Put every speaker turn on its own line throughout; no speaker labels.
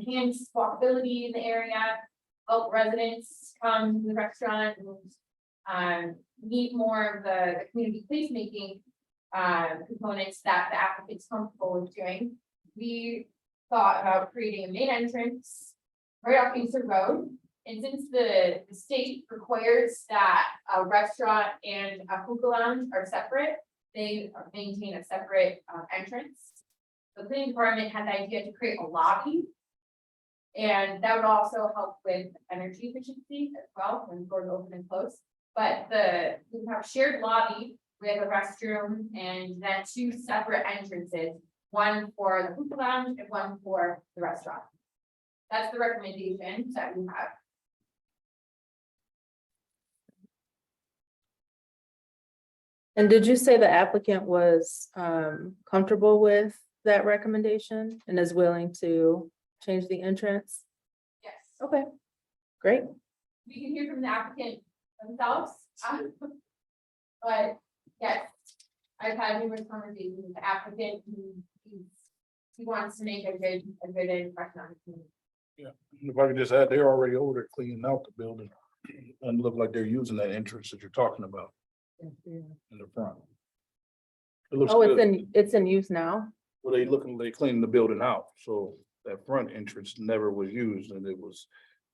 enhance walkability in the area, help residents come to the restaurant and um, need more of the the community placemaking um, components that the applicant's comfortable with doing. We thought about creating a main entrance right off Easter Road. And since the, the state requires that a restaurant and a hookah lounge are separate, they maintain a separate uh, entrance. The planning department had the idea to create a lobby. And that would also help with energy efficiency as well, when doors open and close. But the, we have shared lobby with a restroom and then two separate entrances. One for the hookah lounge and one for the restaurant. That's the recommendation that we have.
And did you say the applicant was um comfortable with that recommendation and is willing to change the entrance?
Yes.
Okay, great.
We can hear from the applicant themselves. um, But yes, I've had numerous conversations with the applicant who he's- he wants to make a good, a good impression on the community.
If I could just add, they're already older cleaning out the building and look like they're using that entrance that you're talking about in the front. It looks
Oh, it's in,
good.
it's in use now?
Well, they looking, they cleaning the building out, so that front entrance never was used and it was,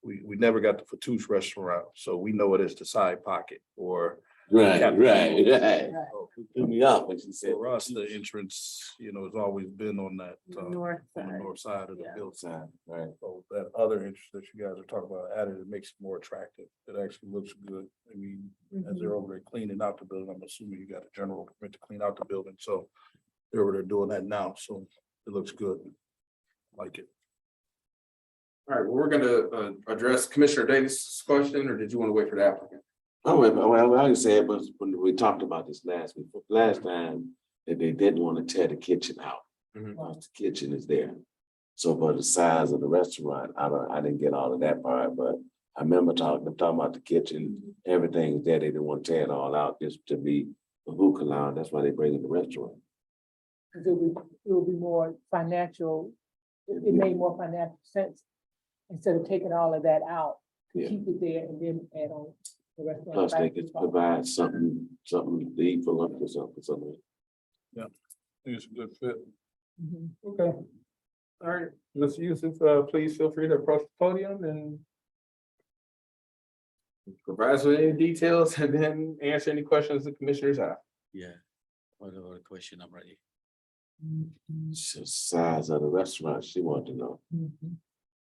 we, we never got the Fatouche restaurant, so we know it is the side pocket or
Right,
Yeah.
right, right.
Right.
Threw me off when she said.
for us, the entrance, you know, has always been on that, uh,
North
on the
side.
north side of the
Yeah.
building.
Outside, Right,
So that other entrance that you guys are talking about added, it makes it more attractive. It actually looks good. I mean, as
Mhm.
Mm-hmm.
they're over there cleaning out the building, I'm assuming you got a general permit to clean out the building, so they're over there doing that now, so it looks good. Like it.
All right, well, we're gonna uh address Commissioner Davis' question, or did you want to wait for the applicant?
oh, well, well, I said, but when we talked about this last week, last time, that they didn't want to tear the kitchen out.
Mhm.
Once The kitchen is there. So, but the size of the restaurant, I don't, I didn't get all of that part, but I remember talking, them talking about the kitchen, everything's there, they didn't want to tear it all out, just to be a hookah lounge, that's why they bring in the restaurant.
Cause it would, it would be more financial, it it made more financial sense. Instead of taking all of that out, to
Yeah.
keep it there and then add on the rest. of the
Plus, they
back
could
spot.
provide something, something to eat for lunch or something, something.
I think it's a good fit.
Mhm.
Okay. All right, Mr. Yusuf, uh, please feel free to approach the podium and
Provide us with any details and then answer any questions the commissioners have.
Yeah, whatever question I'm ready.
It's the Size of the restaurant, she wanted to know.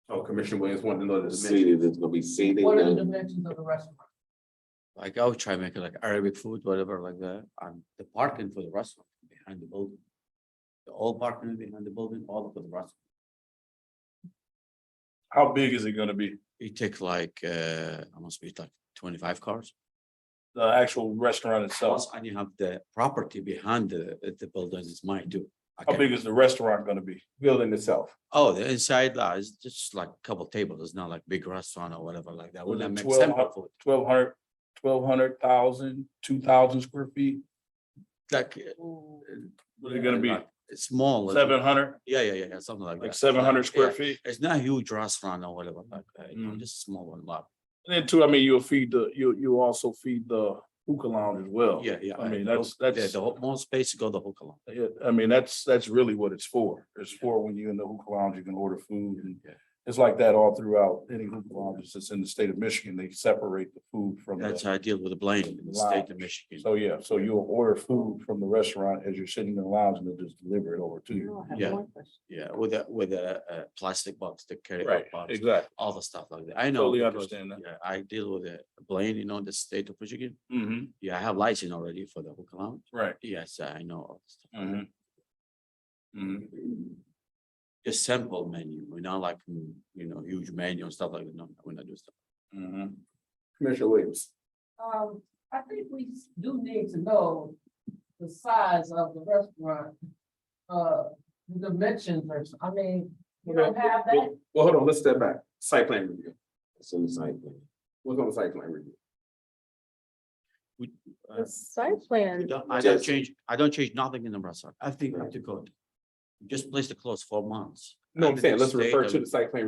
Oh, Commissioner Williams wanted to know the dimension.
Seated, it's gonna be seated.
What are the dimensions of the restaurant?
Like I'll try make it like Arabic food, whatever like that, and the parking for the restaurant behind the building. The old parking behind the building, all for the restaurant.
How big is it gonna be?
It take like, uh, I must be like twenty-five cars.
The actual restaurant
Plus,
itself?
and you have the property behind the, the building is mine too. I
How
can-
big is the restaurant gonna be?
Building itself.
Oh, the inside uh, is just like couple tables. It's not like big restaurant or whatever like that. We're
Was it
not make
12
simple food.
Twelve hundred, twelve hundred thousand, two thousand square feet?
Like.
Ooh.
What is it gonna be?
It's small.
Seven hundred,
Yeah, yeah, yeah, yeah, something like that.
like seven hundred
Yeah.
square feet?
It's not a huge restaurant or whatever, like, uh, you know,
Mhm.
just a small one, like,
And then too, I mean, you'll feed the, you, you also feed the hookah lounge as well.
yeah, yeah.
Oh, I mean,
the
that's-
hook- yeah,
that's-
The whole, more space to go the hook along.
Yeah, I mean, that's, that's really what it's for. It's for when you're in the hookah lounge, you can order food and
Yeah.
it's like that all throughout any hookah lounges that's in the state of Michigan. They separate the food from
That's
the.
how I deal with the blame in the state of Michigan.
So, yeah, so you'll order food from the restaurant as you're sitting in the lounge and they'll just deliver it over to you.
I have
Yeah.
one question.
Yeah, with a, with a, uh plastic box, the carry out box,
exactly.
all the stuff like that. I know.
Totally
because,
understand that.
Yeah, I deal with the blame, you know, the state of Michigan.
hmm
Yeah, I have license already for the hook along.
right.
Yes, I know. all the stuff.
Mhm. Mhm.
Just simple menu, we're not like, mm, you know, huge menu and stuff like that. No, we're not doing stuff.
Mhm.
Commissioner Williams.
Um, I think we s- do need to know the size of the restaurant. Uh, the dimensions, or s- I mean, you don't have that,
Well, well, hold on, let's step back. Site plan review.
It's in the site plan.
What's on the site plan review?
Uh,
The site plan,
Don't- I don't
Just-
change, I don't change nothing in the restaurant. I think
Right.
to go. Just place the clothes for months.
No, I'm
Under
saying,
the
let's
state
refer
of-
to the site plan